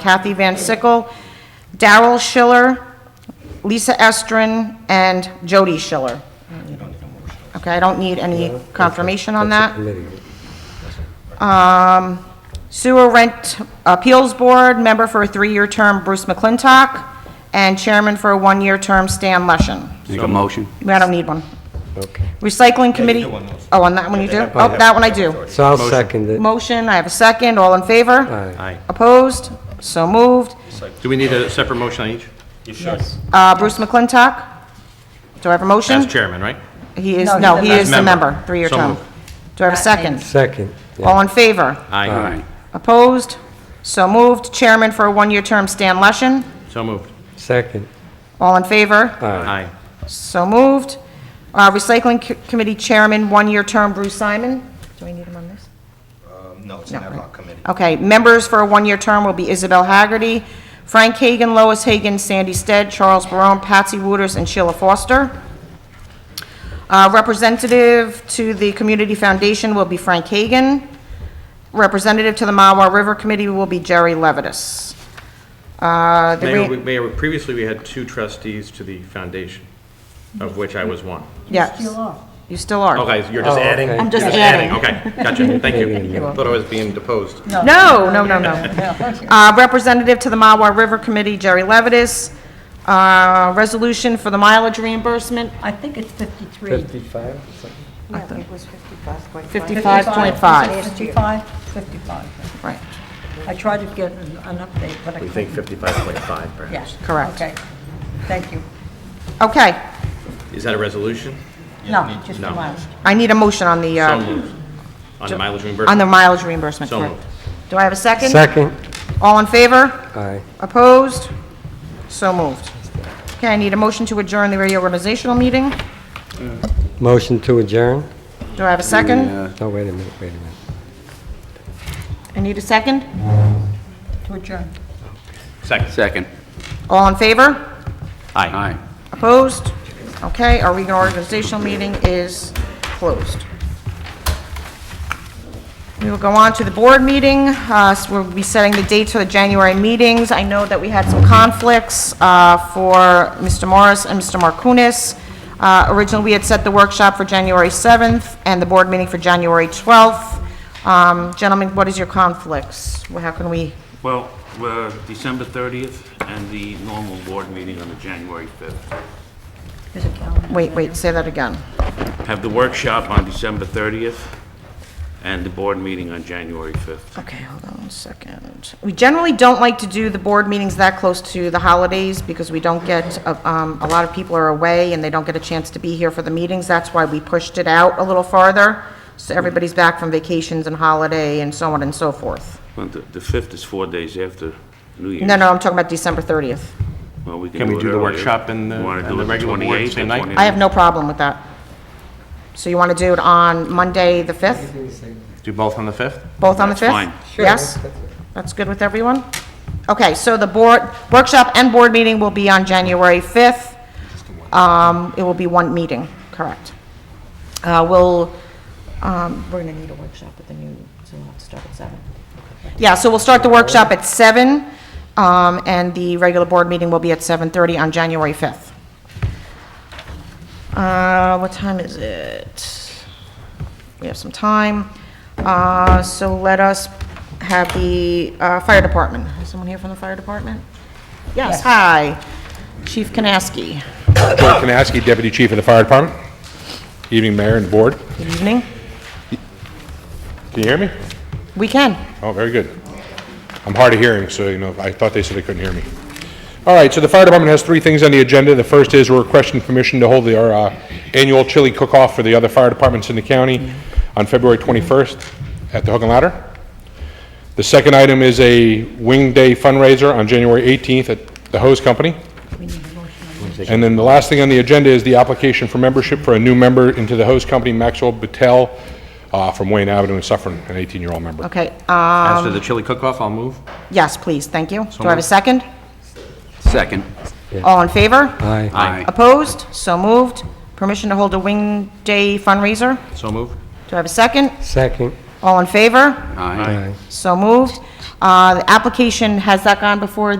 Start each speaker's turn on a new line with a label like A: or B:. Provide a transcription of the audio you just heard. A: Kathy Van Sickle, Daryl Schiller, Lisa Estrin, and Jody Schiller. Okay, I don't need any confirmation on
B: That's a
A: that.
B: committee.
A: Sewer Rent Appeals Board, member for a three-year term Bruce McClintock, and chairman for a one-year term Stan Leshen.
C: Make a motion.
A: I don't need one.
B: Okay.
A: Recycling Committee, oh, on that one you do? Oh, that one I do.
B: So I'll second it.
A: Motion, I have a second, all in favor?
B: Aye.
A: Opposed? So moved.
D: Do we need a separate motion on each?
A: Uh, Bruce McClintock, do I have a motion?
D: As chairman, right?
A: He is,
E: No, he's
A: no,
E: the
A: he
E: member.
A: is the
D: Member.
A: member, three-year
D: So
A: term.
D: moved.
A: Do I have a second?
B: Second. yeah.
A: All in favor?
D: Aye.
A: Opposed? So moved. Chairman for a one-year term, Stan Leshen.
D: So moved.
B: Second.
A: All in favor?
B: Aye.
D: Aye.
A: So moved. Uh, Recycling Co- Committee Chairman, one-year term, Bruce Simon. Do we need him on this?
F: No, it's an ad hoc committee.
A: Okay, members for a one-year term will be Isabel Haggerty, Frank Hagan, Lois Hagan, Sandy Stead, Charles Barone, Patsy Wooters, and Sheila Foster. Uh, Representative to the Community Foundation will be Frank Hagan. Representative to the Mawa River Committee will be Jerry Levitas. Uh, the
D: Mayor,
A: re-
D: we- Mayor, previously we had two trustees to the foundation, of which I was one.
A: Yes. You still are.
D: Okay, uh, you're just
B: Oh,
D: adding?
B: okay. I'm
E: just
D: You're
E: adding.
D: Okay, gotcha, thank you. Thought I was being deposed.
A: No, no, no, no. Uh, Representative to the Mawa River Committee, Jerry Levitas. Uh, Resolution for the mileage reimbursement,
E: I think it's 53.
B: 55 or something?
G: I think it was 55.5.
A: 55.5.
E: 55, 55.
A: Right.
E: I tried to get an an update, but I couldn't.
D: We think 55.5 perhaps.
E: Yes.
A: Correct.
E: Okay, thank you.
A: Okay,
D: Is that a resolution?
E: No, just the
D: No.
E: last.
A: I need a motion on the,
D: So
A: uh,
D: moved. On the mileage
A: on the
D: reimbursement?
A: mileage reimbursement,
D: So
A: correct?
D: moved.
A: Do I have a second?
B: Second.
A: All in favor?
B: Aye.
A: Opposed? So moved. Okay, I need a motion to adjourn the reorganizational meeting.
B: Motion to adjourn?
A: Do I have a second?
B: Oh, wait a minute, wait a minute.
A: I need a second.
E: To adjourn.
D: Second.
C: Second.
A: All in favor?
D: Aye.
C: Aye.
A: Opposed? Okay, our reorganizational meeting is closed. We will go on to the board meeting. Uh, so We'll be setting the dates for the January meetings. I know that we had some conflicts uh, for Mr. Morris and Mr. Markounis. Uh, Originally, we had set the workshop for January 7th and the board meeting for January 12th. Um, Gentlemen, what is your conflicts? How can we,
H: Well, we're December 30th and the normal board meeting on the January 5th.
E: There's a calendar.
A: wait, wait, say that again.
H: Have the workshop on December 30th and the board meeting on January 5th.
A: Okay, hold on one second. We generally don't like to do the board meetings that close to the holidays because we don't get, uh, um, a lot of people are away and they don't get a chance to be here for the meetings. That's why we pushed it out a little farther. So everybody's back from vacations and holiday and so on and so forth.
H: Well, The the 5th is four days after New Year's.
A: No, no, I'm talking about December 30th.
H: Well,
D: Can we
H: it
D: do the
H: earlier.
D: workshop and the-
H: Wanna
D: and
H: do
D: the
H: it
D: regular board
H: 28th,
D: same night?
H: 29th?
A: I have no problem with that. So you want to do it on Monday, the 5th?
D: Do both on the 5th?
A: Both on the 5th?
H: fine.
A: Yes? That's good with everyone? Okay, so the board, workshop and board meeting will be on January 5th. Um, It will be one meeting, correct. Uh, We'll, um, we're going to need a workshop at the new, so we'll have to start at 7. Yeah, so we'll start the workshop at 7, um, and the regular board meeting will be at 7:30 on January 5th. Uh, What time is it? We have some time. Uh, So let us have the uh, fire department. Is someone here from the fire department? Yes, hi. Chief Kanaski.
I: Joe Kanaski, Deputy Chief of the Fire Department. Evening, Mayor and Board.
A: Good evening.
I: Can you hear me?
A: We can.
I: Oh, very good. I'm hard of hearing, so, you know, I thought they said they couldn't hear me. All right, so the fire department has three things on the agenda. The first is we're requesting permission to hold the- our uh, annual chili cook-off for the other fire departments in the county on February 21st at the Hook and Ladder. The second item is a Wing Day fundraiser on January 18th at the Hose Company. And then the last thing on the agenda is the application for membership for a new member into the Hose Company, Maxwell Battelle, uh, from Wayne Avenue in Suffern, an 18-year-old member.
A: Okay, uh,
D: As to the chili cook-off, I'll move.
A: yes, please, thank you. Do I have a second?
C: Second.
A: All in favor?
B: Aye.
C: Aye.
A: Opposed? So moved. Permission to hold a wing day fundraiser.
D: So moved.
A: Do I have a second?
B: Second.
A: All in favor?
C: Aye.
B: Aye.
A: So moved. Uh, The application, has that gone before